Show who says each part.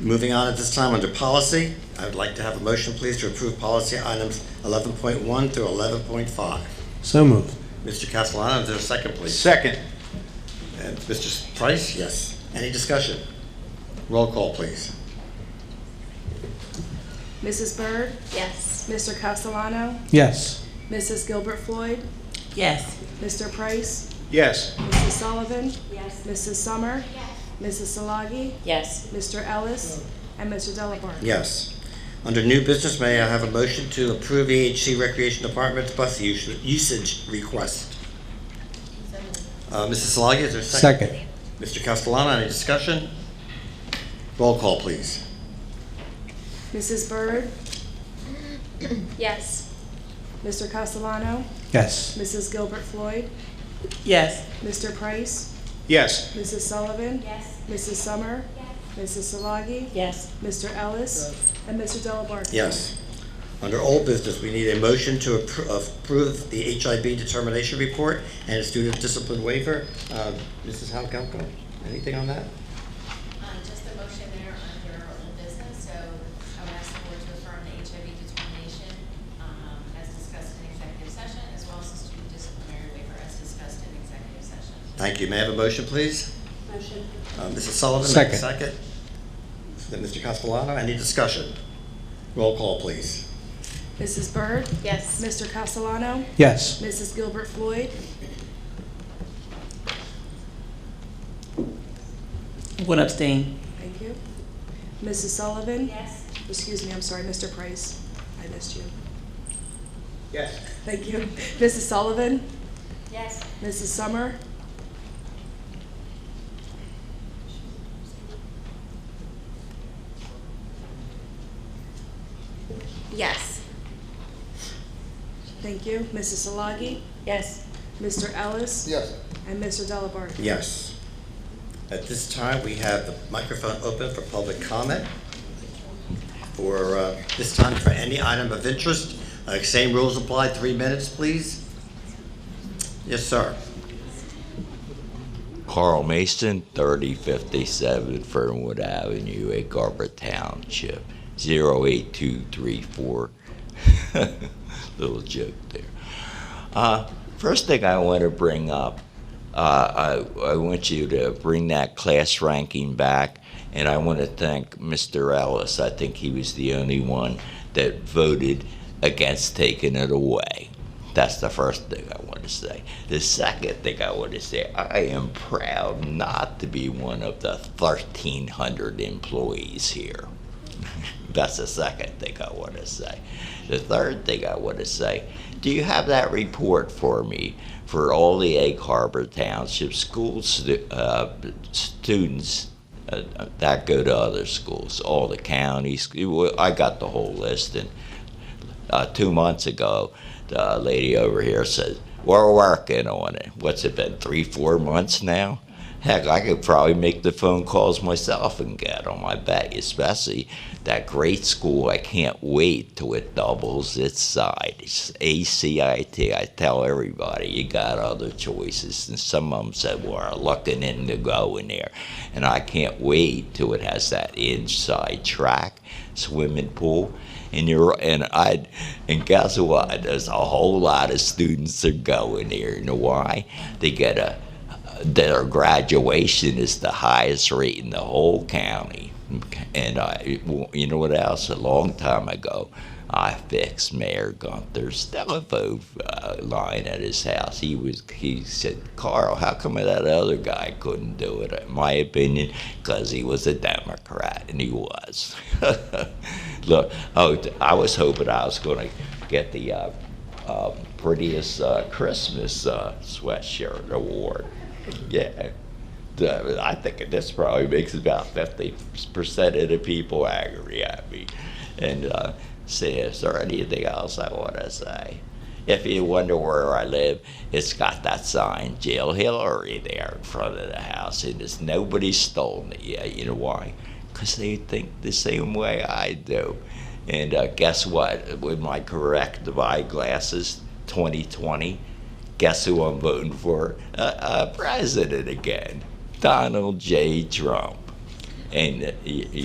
Speaker 1: Moving on at this time under policy, I would like to have a motion, please, to approve policy items 11.1 through 11.5.
Speaker 2: So moved.
Speaker 1: Mr. Castellano, is there a second, please?
Speaker 3: Second.
Speaker 1: And Mr. Price? Yes. Any discussion? Roll call, please.
Speaker 4: Mrs. Byrd?
Speaker 5: Yes.
Speaker 4: Mr. Castellano?
Speaker 2: Yes.
Speaker 4: Mrs. Gilbert Floyd?
Speaker 6: yes,
Speaker 4: Mr. Price?
Speaker 3: Yes.
Speaker 4: Mrs. Sullivan?
Speaker 5: Yes.
Speaker 4: Mrs. Summer? Mrs. Solagi?
Speaker 6: yes,
Speaker 4: Mr. Ellis? And Mr. Delabarne?
Speaker 1: Yes. Under new business, may I have a motion to approve EHC Recreation Department's bus us- usage request? Uh, Mrs. Solagi, is there a second?
Speaker 2: Second.
Speaker 1: Mr. Castellano, any discussion? Roll call, please.
Speaker 4: Mrs. Byrd?
Speaker 5: Yes.
Speaker 4: Mr. Castellano?
Speaker 2: Yes.
Speaker 4: Mrs. Gilbert Floyd?
Speaker 6: yes,
Speaker 4: Mr. Price?
Speaker 3: Yes.
Speaker 4: Mrs. Sullivan?
Speaker 5: Yes.
Speaker 4: Mrs. Summer? Mrs. Solagi?
Speaker 6: yes,
Speaker 4: Mr. Ellis? And Mr. Delabarne?
Speaker 1: Yes. Under old business, we need a motion to appro- approve the HIB determination report and a student discipline waiver. Uh, Mrs. Halkalco, anything on that?
Speaker 7: Um, Just a motion there under old business, so I would ask the board to affirm the HIV determination um, as discussed in executive session, as well as the student disciplinary waiver as discussed in executive session.
Speaker 1: Thank you. May I have a motion, please?
Speaker 5: Motion.
Speaker 1: Uh, Mrs. Sullivan? make a
Speaker 2: Second.
Speaker 1: Second. Then Mr. Castellano, any discussion? Roll call, please.
Speaker 4: Mrs. Byrd?
Speaker 7: Yes.
Speaker 4: Mr. Castellano?
Speaker 2: Yes.
Speaker 4: Mrs. Gilbert Floyd?
Speaker 6: would abstain,
Speaker 4: Thank you. Mrs. Sullivan?
Speaker 5: Yes.
Speaker 4: Excuse me, I'm sorry, Mr. Price. I missed you.
Speaker 3: Yes.
Speaker 4: Thank you. Mrs. Sullivan?
Speaker 5: Yes.
Speaker 4: Mrs. Summer?
Speaker 7: Yes.
Speaker 4: Thank you. Mrs. Solagi?
Speaker 6: yes,
Speaker 4: Mr. Ellis?
Speaker 3: Yes.
Speaker 4: And Mr. Delabarne?
Speaker 1: Yes. At this time, we have the microphone open for public comment. For, uh, this time, for any item of interest, Uh, same rules apply, three minutes, please. Yes, sir.
Speaker 8: Carl Mason, 3057 Fernwood Avenue, at Garber Township, 08234. Little joke there. Uh, first thing I want to bring up, uh, I, I want you to bring that class ranking back, and I want to thank Mr. Ellis. I think he was the only one that voted against taking it away. That's the first thing I want to say. The second thing I want to say, I am proud not to be one of the 1,300 employees here. That's the second thing I want to say. The third thing I want to say do you have that report for me for all the Egg Harbor Township school stu- uh, students uh, that go to other schools, all the counties? I got the whole list, and uh, two months ago, the lady over here said, We're working on it. What's it been, three, four months now? Heck, I could probably make the phone calls myself and get them, I bet, especially that great school. I can't wait till it doubles its size. ACIT, I tell everybody, you got other choices. And some of them said, We're looking into going there. And I can't wait till it has that inside track, swimming pool and you're and I and guess what? There's a whole lot of students that go in there. You know why? They get a their graduation is the highest rate in the whole county. And I, you know what else? A long time ago, I fixed Mayor Gunther's telephone uh, line at his house. He was he said, "Carl, how come that other guy couldn't do it?" In my opinion, because he was a Democrat, and he was. Look, oh, I was hoping I was going to get the uh, um, prettiest uh, Christmas uh, sweatshirt award. Yeah. The- I think this probably makes about fifty percent of the people angry at me. And uh, see, is there anything else I want to say? If you wonder where I live, it's got that sign, Jill Hillary, there in front of the house, and it's nobody stolen it yet. You know why? Because they think the same way I do. And uh, guess what? With my correct eyeglasses, 2020, guess who I'm voting for? Uh, uh, president again, Donald J. Trump. And uh, y- y-